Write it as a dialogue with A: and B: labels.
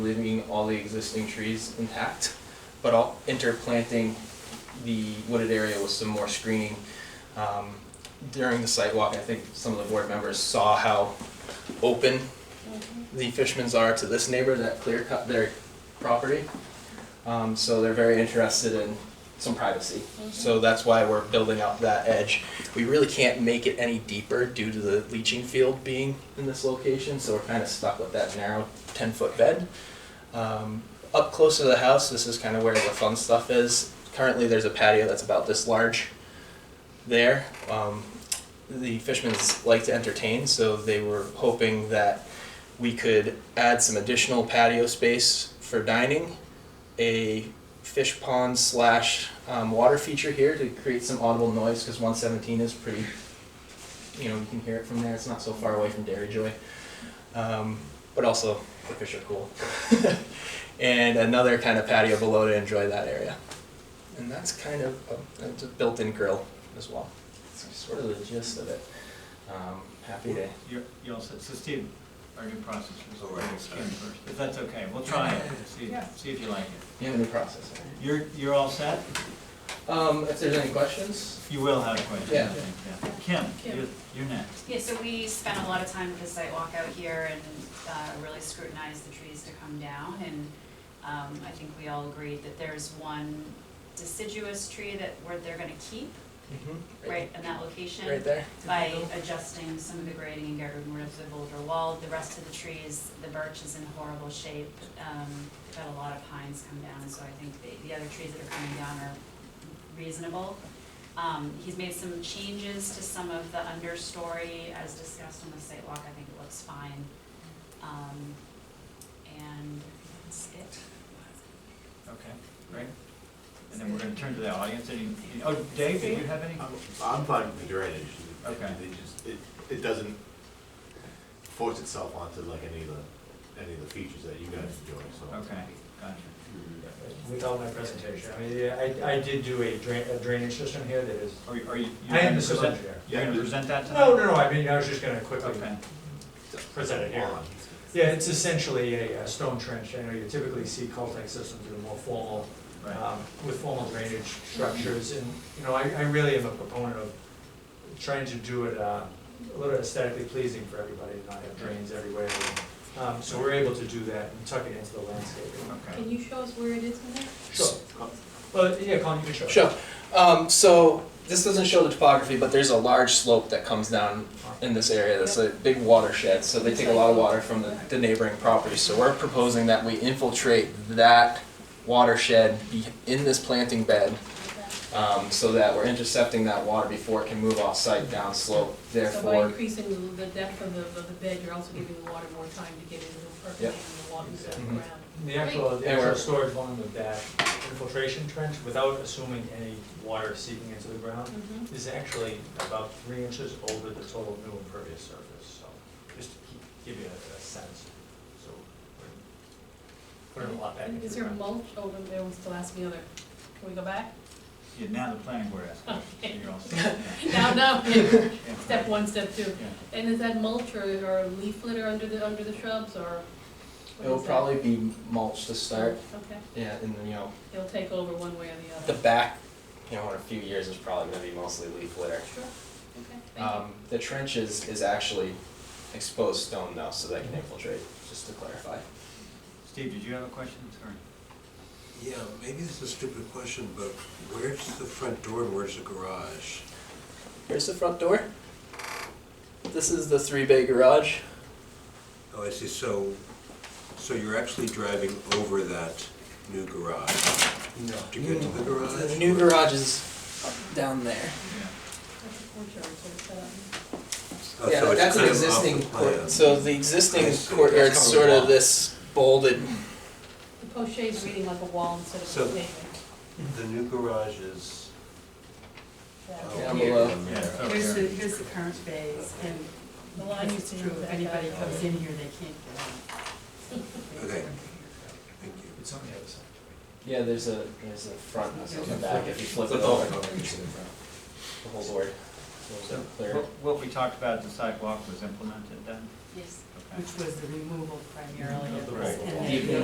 A: leaving all the existing trees intact, but I'll interplanting the wooded area with some more screening. Um, During the site walk, I think some of the board members saw how open the Fishmans are to this neighbor that clear cut their property. Um, So they're very interested in some privacy. So that's why we're building up that edge. We really can't make it any deeper due to the leaching field being in this location, so we're kind of stuck with that narrow ten-foot bed. Um, up close to the house, this is kind of where the fun stuff is. Currently, there's a patio that's about this large there. Um, the Fishmans like to entertain, so they were hoping that we could add some additional patio space for dining, a fish pond slash um, water feature here to create some audible noise because 117 is pretty, you know, you can hear it from there. It's not so far away from Dairy Joy. Um, but also, the fish are cool. and another kind of patio below to enjoy that area. And that's kind of a, it's a built in grill as well. That's sort of the gist of it. Um, happy to.
B: You're, you're all set, so Steve, our new process was
C: All right,
B: skin first, if that's okay, we'll try it, see, see if you like it.
A: You have any process?
B: You're, you're all set?
A: Um, if there's any questions,
B: You will have questions, I
A: Yeah.
B: think, yeah. Kim,
D: Kim.
B: you're, you're next.
D: Yeah, so we spent a lot of time with the site walk out here and uh, really scrutinized the trees to come down. And um, I think we all agreed that there's one deciduous tree that we're, they're gonna keep,
A: mm-hmm.
D: right, in that location.
A: Right there.
D: By adjusting some of the grading and getting rid of the boulder wall. The rest of the trees, the birch is in horrible shape. Um, We've had a lot of pines come down, so I think the, the other trees that are coming down are reasonable. Um, he's made some changes to some of the understory as discussed on the site walk, I think it looks fine. Um, and that's it.
B: Okay, great. And then we're gonna turn to the audience, any, any- oh, Dave, do you have any?
C: I'm, I'm fine with the drainage. It-
B: Okay.
C: It just, it, it doesn't force itself onto like any of the, any of the features that you guys enjoy, so.
B: Okay, gotcha.
E: Mm-hmm. Without my presentation, I mean, yeah, I, I did do a drain, a drainage system here that is,
B: Are you, are you? you're
E: I am
B: gonna
E: the civil
B: present-
E: engineer.
B: You're gonna present that to them?
E: No, no, no, I mean, I was just gonna quickly
B: Uh-huh. Okay,
E: present it here.
C: Hold on.
E: Yeah, it's essentially a, uh stone trench, I know you typically see cul-de-sac systems that are more formal,
B: right,
E: um, with formal drainage
F: Mm-hmm.
E: structures, and, you know, I, I really am a proponent of trying to do it, uh, a little aesthetically pleasing for everybody, not have drains everywhere. Um, so we're able to do that and tuck it into the landscaping.
B: okay.
F: Can you show us where it is in there?
E: So, well, yeah, Colin, you can show. it.
A: Sure. Um, so this doesn't show the topography, but there's a large slope that comes down in this area. That's a big watershed, so they take a lot of water from the, the neighboring properties. So we're proposing that we infiltrate that watershed be- in this planting bed, um, so that we're intercepting that water before it can move off site down slope.
F: So by
A: Therefore,
F: increasing the, the depth of the, of the bed, you're also giving the water more time to get into the percolate and the water to the
A: Mhm.
F: ground.
E: The actual, the
A: And we're-
E: actual storage volume of that infiltration trench, without assuming any water seeping into the ground,
F: Mhm.
E: is actually about three inches over the total new impervious surface, so just to keep- give you a, a sense. So we're putting a lot back
F: And
E: into
F: Is
E: the
F: there
E: ground.
F: mulch over there, was the last the other, can we go back?
B: Yeah, now the planning board asked,
F: Okay.
B: you're all set. yeah,
F: No, no,
B: yeah,
F: step one, step two.
B: yeah.
F: And is that mulch or, or leaf litter under the, under the shrubs, or? what
A: it'll
F: is that?
A: probably be mulch to start.
F: Okay,
A: Yeah, and then, you know,
F: it'll take over one way or the
A: the
F: other.
A: back, you know, in a few years is probably gonna be mostly leaf litter.
F: Sure, okay, thank you.
A: Um, the trench is, is actually exposed stone now, so that can infiltrate, just to clarify.
B: Steve, did you have a question, sorry?
G: Yeah, maybe this is a stupid question, but where's the front door and where's the garage?
A: Here's the front door. This is the three bay garage.
G: Oh, I see, so, so you're actually driving over that new garage
A: No.
G: to get to the garage? Oh,
A: The new garage is down there.
B: Yeah.
F: That's a courtyard, so it's, um,
G: Oh, so
A: yeah,
G: it's
A: that's an
G: kind of off the
A: existing
G: plan.
A: court. So the existing
G: I see.
A: courtyard's
G: That's
A: sort of
G: covered.
A: this bolded.
F: the pochade's reading like a wall instead of
G: So-
F: a pavement.
G: The new garage is.
F: Yeah.
G: oh,
A: Down below.
G: down there.
B: Yeah, it's over
H: Here's the,
B: here.
H: here's the current phase, and
F: The line used
H: it's
F: to
H: true,
F: move
H: if
F: back
H: anybody
F: out.
H: comes in here, they can't get out.
G: Okay, thank you.
E: It's on the other side.
A: Yeah, there's a there's a front and
H: There's
A: a
H: a
A: back. If you flip
G: Flip
A: it over,
G: over.
A: the whole board. So it's clear.
B: What- What we talked about at the sidewalk was implemented then?
H: Yes.
B: Okay.
H: Which was the removal primarily of
B: Right.
H: this. and
A: Even
H: then-